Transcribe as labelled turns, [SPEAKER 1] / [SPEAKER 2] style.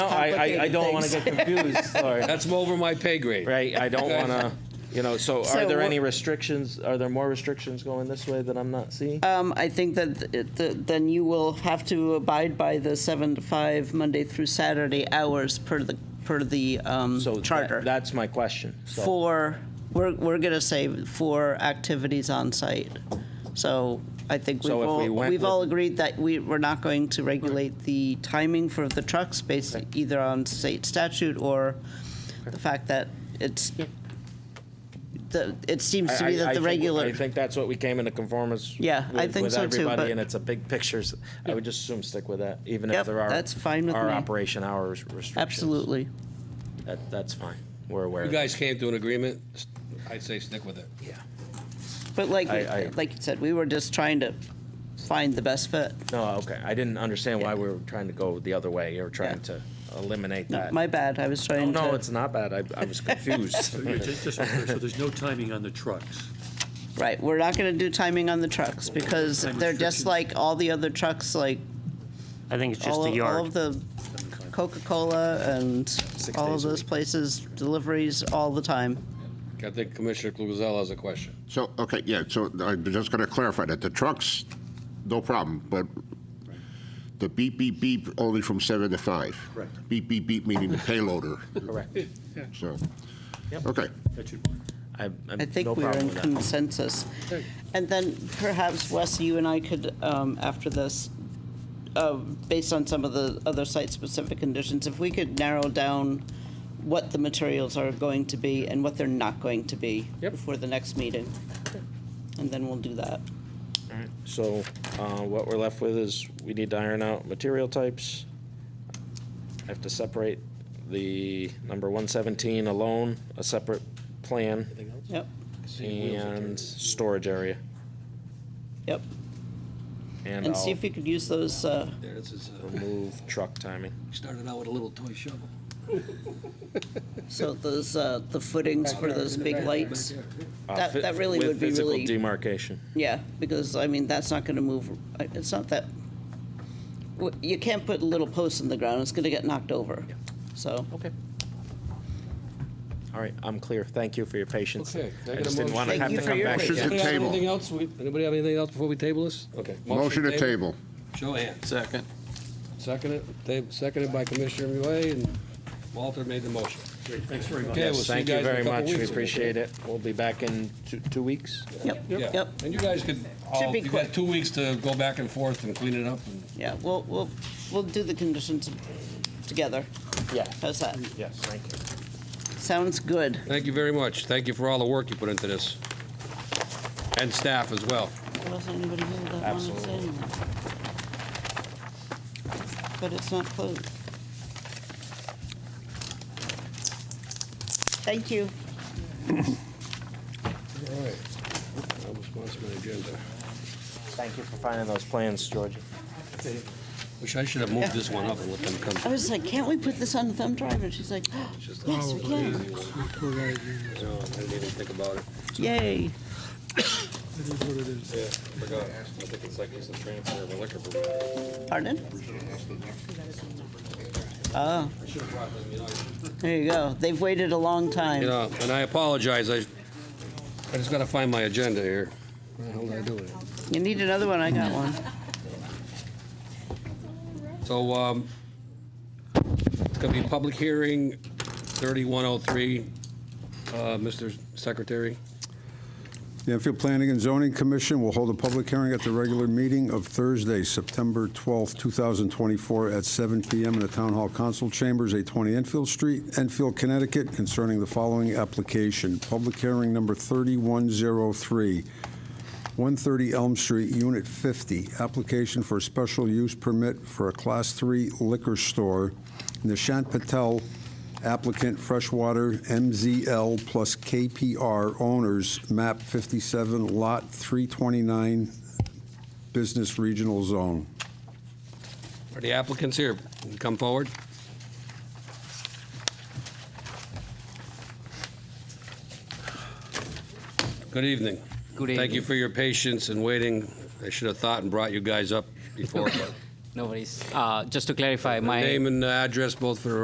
[SPEAKER 1] I, I, I don't want to get confused, sorry.
[SPEAKER 2] That's over my pay grade.
[SPEAKER 1] Right, I don't want to, you know, so are
[SPEAKER 3] So
[SPEAKER 1] there
[SPEAKER 3] what-
[SPEAKER 1] any restrictions, are there more restrictions going this way that I'm not seeing?
[SPEAKER 3] Um, I think that it- th- then you will have to abide by the seven to five, Monday through Saturday hours per the, per the um,
[SPEAKER 1] So that-
[SPEAKER 3] charter.
[SPEAKER 1] That's my question, so.
[SPEAKER 3] For, we're, we're going to say for activities on site. So I think we've
[SPEAKER 1] So if
[SPEAKER 3] all,
[SPEAKER 1] we went
[SPEAKER 3] we've
[SPEAKER 1] with-
[SPEAKER 3] all agreed that we, we're not going to regulate the timing for the trucks based either on state statute or the fact that it's, the, it seems to
[SPEAKER 1] I-
[SPEAKER 3] be
[SPEAKER 1] I- I
[SPEAKER 3] that the
[SPEAKER 1] think-
[SPEAKER 3] regular.
[SPEAKER 1] I think that's what we came into conformance.
[SPEAKER 3] Yeah, I
[SPEAKER 1] with-
[SPEAKER 3] think so
[SPEAKER 1] With
[SPEAKER 3] too,
[SPEAKER 1] everybody,
[SPEAKER 3] but-
[SPEAKER 1] and it's a big picture. so I would just assume stick with that, even if
[SPEAKER 3] Yep,
[SPEAKER 1] there are.
[SPEAKER 3] that's fine with
[SPEAKER 1] Our
[SPEAKER 3] me.
[SPEAKER 1] operation hours restrictions.
[SPEAKER 3] Absolutely.
[SPEAKER 1] That, that's fine. We're aware.
[SPEAKER 2] You
[SPEAKER 1] of that.
[SPEAKER 2] guys came to an agreement, s- I'd say stick with it.
[SPEAKER 1] Yeah.
[SPEAKER 3] But like,
[SPEAKER 1] I- I-
[SPEAKER 3] like you said, we were just trying to find the best fit.
[SPEAKER 1] No, okay. I didn't understand why we were trying to go the other way. You were trying
[SPEAKER 3] Yeah.
[SPEAKER 1] to eliminate
[SPEAKER 3] No,
[SPEAKER 1] that. Oh,
[SPEAKER 3] My bad, I was
[SPEAKER 1] No,
[SPEAKER 3] trying to.
[SPEAKER 1] No, it's not bad. I, I was confused.
[SPEAKER 4] So, yeah, just, just, so clear, so there's no timing on the trucks.
[SPEAKER 3] Right, we're not gonna do timing on the trucks because
[SPEAKER 4] Time
[SPEAKER 3] they're just
[SPEAKER 4] restrictions.
[SPEAKER 3] like all the other trucks, like
[SPEAKER 5] I think it's just
[SPEAKER 3] all,
[SPEAKER 5] the
[SPEAKER 3] of- all
[SPEAKER 5] yard.
[SPEAKER 3] of the Coca-Cola and all of
[SPEAKER 1] days a
[SPEAKER 3] those
[SPEAKER 1] week.
[SPEAKER 3] places, deliveries all the time.
[SPEAKER 2] I think Commissioner Cluzel has a question.
[SPEAKER 6] So, okay, yeah, so I'm just going to clarify that. The trucks, no problem, but the beep, beep, beep only from 7 to 5.
[SPEAKER 4] Correct.
[SPEAKER 6] Beep, beep, beep meaning the payloader,
[SPEAKER 1] Correct.
[SPEAKER 6] so, okay.
[SPEAKER 4] That should work.
[SPEAKER 1] I, I'm,
[SPEAKER 3] I think
[SPEAKER 1] no
[SPEAKER 3] we are
[SPEAKER 1] problem
[SPEAKER 3] in
[SPEAKER 1] with that.
[SPEAKER 3] consensus. And then perhaps, Wes, you and I could, um, after this, uh, based on some of the other site-specific conditions, if we could narrow down what the materials are going to be and what they're not going to be
[SPEAKER 1] Yep.
[SPEAKER 3] before the next meeting. And then we'll do that.
[SPEAKER 1] So, uh, what we're left with is we need to iron out material types. I have to separate the number one seventeen alone, a separate plan,
[SPEAKER 3] Yep,
[SPEAKER 1] and storage area.
[SPEAKER 3] yep.
[SPEAKER 1] And
[SPEAKER 3] And see
[SPEAKER 1] I'll
[SPEAKER 3] if we could use those, uh,
[SPEAKER 2] There, this is,
[SPEAKER 1] remove truck timing.
[SPEAKER 2] started out with a little toy shovel.
[SPEAKER 3] so those, uh, the footings for those big lights.
[SPEAKER 1] Uh,
[SPEAKER 3] That-
[SPEAKER 1] fi-
[SPEAKER 3] that really
[SPEAKER 1] with
[SPEAKER 3] would be really-
[SPEAKER 1] Physical demarcation.
[SPEAKER 3] Yeah, because, I mean, that's not gonna move, it's not that, w- you can't put little posts in the ground, it's gonna get knocked over. So,
[SPEAKER 1] Okay. All right, I'm clear. Thank you for your patience.
[SPEAKER 2] Okay.
[SPEAKER 1] I just didn't want to
[SPEAKER 3] Thank
[SPEAKER 1] have
[SPEAKER 3] you
[SPEAKER 1] to
[SPEAKER 3] for
[SPEAKER 1] come
[SPEAKER 3] your
[SPEAKER 1] back.
[SPEAKER 6] patience.
[SPEAKER 1] again.
[SPEAKER 6] Motion
[SPEAKER 2] Anybody
[SPEAKER 6] to
[SPEAKER 2] have
[SPEAKER 6] table.
[SPEAKER 2] anything else? We- Anybody have anything else before we table this? Okay.
[SPEAKER 6] Motion to table.
[SPEAKER 2] Show of hands.
[SPEAKER 7] Second.
[SPEAKER 2] Seconded, ta- seconded by Commissioner Roulet, and Walter made the motion.
[SPEAKER 4] Great, thanks very much.
[SPEAKER 2] Okay,
[SPEAKER 1] Yes,
[SPEAKER 2] we'll see you
[SPEAKER 1] thank you
[SPEAKER 2] guys in a
[SPEAKER 1] very
[SPEAKER 2] couple
[SPEAKER 1] much. We
[SPEAKER 2] weeks.
[SPEAKER 1] appreciate it. We'll be back in two, two weeks.
[SPEAKER 3] yep,
[SPEAKER 2] Yeah.
[SPEAKER 3] yep,
[SPEAKER 2] And you guys could, all-
[SPEAKER 3] be
[SPEAKER 2] you
[SPEAKER 3] quick.
[SPEAKER 2] got two weeks to go back and forth and clean it up and
[SPEAKER 3] yeah, we'll, we'll, we'll do the conditions together.
[SPEAKER 1] Yeah.
[SPEAKER 3] How's that?
[SPEAKER 1] Yes, thank you.
[SPEAKER 3] Sounds good.
[SPEAKER 2] Thank you very much. Thank you for all the work you put into this. And staff as well.
[SPEAKER 3] There wasn't anybody here that wanted to say
[SPEAKER 1] Absolutely.
[SPEAKER 3] anything. But it's not closed. Thank you.
[SPEAKER 2] All right. That was once my agenda.
[SPEAKER 1] Thank you for finding those plans, Georgia.
[SPEAKER 2] Wish I should have moved this one up and let them
[SPEAKER 3] I
[SPEAKER 2] come.
[SPEAKER 3] was like, can't we put this on the thumb drive? And she's like, yes, we can.
[SPEAKER 2] No, I didn't even think about it.
[SPEAKER 3] Yay.
[SPEAKER 2] Yeah, forgot. I think it's like it's the transfer of a liquor permit.
[SPEAKER 3] Pardon? Oh, there you go. They've waited a long
[SPEAKER 2] You
[SPEAKER 3] time.
[SPEAKER 2] know, and I apologize. I, I just gotta find my agenda here. What the hell did I do with it?
[SPEAKER 3] You need another one? I got one.
[SPEAKER 2] So, um, it's gonna be public hearing thirty-one oh three, uh, Mr. Secretary.
[SPEAKER 8] The Enfield Planning and Zoning Commission will hold a public hearing at the regular meeting of Thursday, September 12, 2024, at 7 p.m. in the Town Hall Council Chambers, 820 Enfield Street, Enfield, Connecticut, concerning the following application. Public hearing number 3103, 130 Elm Street, Unit 50, application for a special use permit for a Class 3 liquor store. Nishant Patel, applicant Freshwater MZL plus KPR owners, MAP 57, Lot 329, Business Regional Zone.
[SPEAKER 2] Are the applicants here? Come forward. Good evening.
[SPEAKER 7] Good
[SPEAKER 2] Thank you
[SPEAKER 7] evening.
[SPEAKER 2] for your patience and waiting. I should have thought and brought you guys up before. but-
[SPEAKER 7] No worries. Uh, Just to clarify, my...
[SPEAKER 2] Name and address both for the